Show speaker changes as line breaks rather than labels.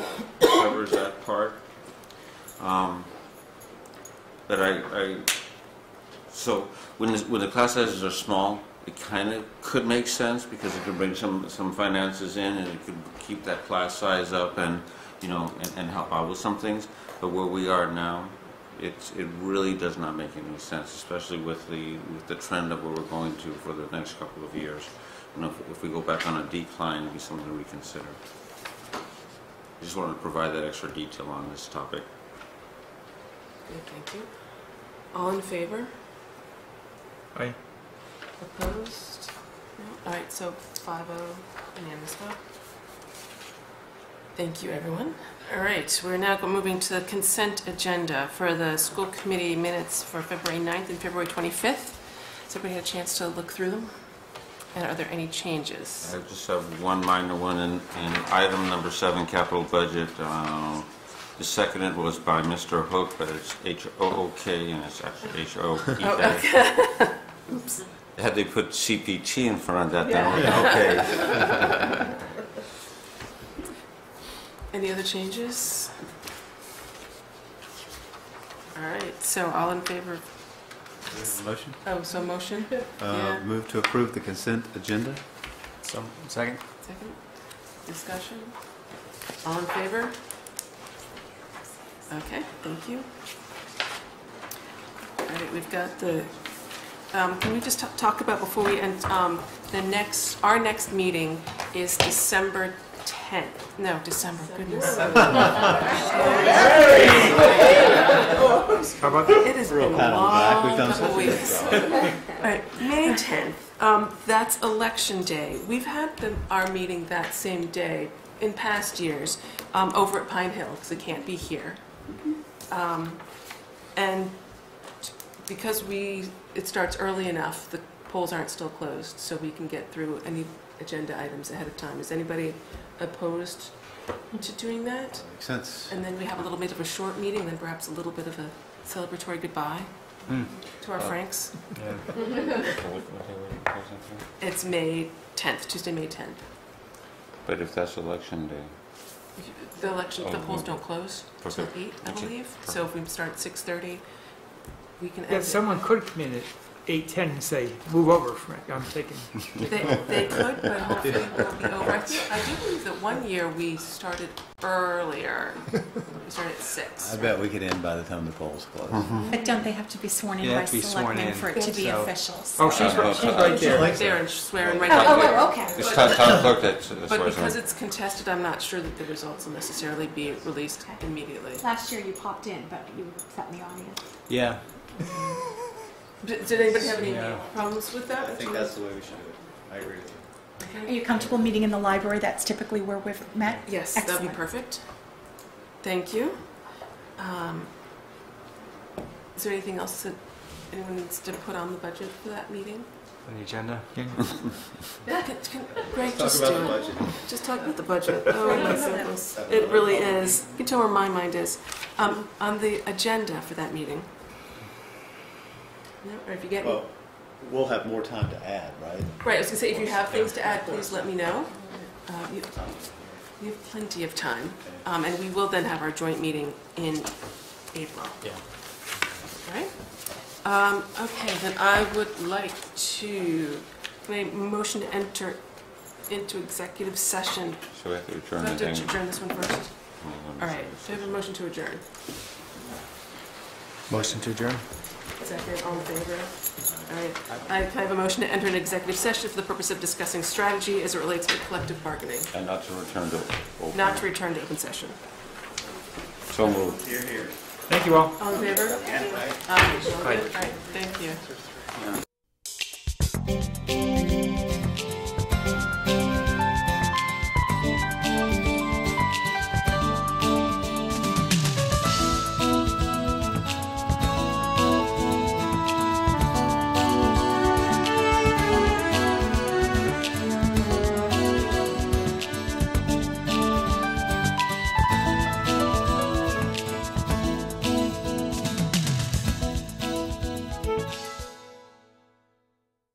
that part. Um, but I, I, so when, this- when the class sizes are small, it kind of could make sense because it could bring some, some finances in and it could keep that class size up and, you know, and, and help out with some things. But where we are now, it's, it really does not make any sense, especially with the, with the trend of where we're going to for the next couple of years. You know, if, if we go back on a decline, it'd be something to reconsider. I just wanted to provide that extra detail on this topic.
Okay, Thank you. All in favor?
Aye.
Opposed? No? All right, so five oh unanimous vote. Thank you, everyone. All right, we're now go- moving to the consent agenda for the school committee minutes for February 9th and February 25th. Has everybody had a chance to look through them? And are there any changes?
I just have one minor one, in in item number seven, capital budget, uh, the seconded was by Mr. Hook, but it's H-O-O-K, and it's actually
Oh,
H-O-E-K. Had they put CPT in front of that, then it would be okay.
Any other changes? All right, so all in favor,
Motion?
oh, so motion?
Uh,
Yeah.
Move to approve the consent agenda?
Some, second?
Second, discussion? All in favor? Okay, thank you. All right, we've got the, um, can we just ta- talk about before we end, um, the next, our next meeting is December 10th. No, December, goodness.
How about?
It has been a
pat on the back.
long
We've done
couple
such a good
weeks. All right, May 10th, um, that's election day. We've had the, our meeting that same day in past years, um, over at Pine Hill, because it can't be here. Um, and because we, it starts early enough, the polls aren't still closed, so we can get through any agenda items ahead of time. Is anybody opposed to doing that?
Makes sense.
And then we have a little bit of a short meeting, then perhaps a little bit of a celebratory goodbye
Hmm.
to our Franks.
Yeah.
It's May 10th, Tuesday, May 10th.
But if that's election day,
The election, the
Oh,
polls
okay.
don't close till
Perfect.
8, I
Okay.
believe. So if we start at 6:30, we can
Yeah,
end it.
someone could come in at eight ten and say, move over, Frank, I'm thinking.
They they could, but hopefully it will be over. I think- I do believe that one year we started earlier. We started at 6.
I bet we could end by the time the polls close.
But don't they have to be sworn in
Yeah,
by
have to be sworn
selectmen
in,
for it to be
so-
official?
Oh, she's right, she's right there.
Right There and swearing right
Oh,
back in.
oh, okay.
it's town town clerk that's, that's why
But
it's on.
because it's contested, I'm not sure that the results will necessarily be released immediately.
Last year you popped in, but you sat in the audience.
Yeah.
Did, did anybody have any
Yeah.
problems with that?
the way we should do it. I agree with you.
Okay.
Are you comfortable meeting in the library? That's typically where we've met.
Yes, that would be
Excellent.
perfect. Thank you. Um, is there anything else that anyone needs to put on the budget for that meeting?
On the agenda?
Yeah, can, can, Greg, just do it. Just talk about the budget. Oh, it is so close. it really is. You can tell where my mind is. Um, on the agenda for that meeting. No, or if you get
Well, we'll have more time to add, right?
Right, I was gonna say, if you have things to add, please let me know. Uh, You you have plenty of time, Um, and we will then have our joint meeting in April.
Yeah.
All right? Um, Okay, then I would like to, can I motion to enter into executive session?
So we have to
Do I
return the
have to
thing.
adjourn this one first?
Hold on a
All right,
second.
do I have a motion to adjourn?
Motion to adjourn?
Second, all in favor? All right, I can I have a motion to enter an executive session for the purpose of discussing strategy as it relates to collective bargaining.
And not to return to open.
not to return to open session.
So moved.
Thank you all.
All in favor? Aye. All right, thank you.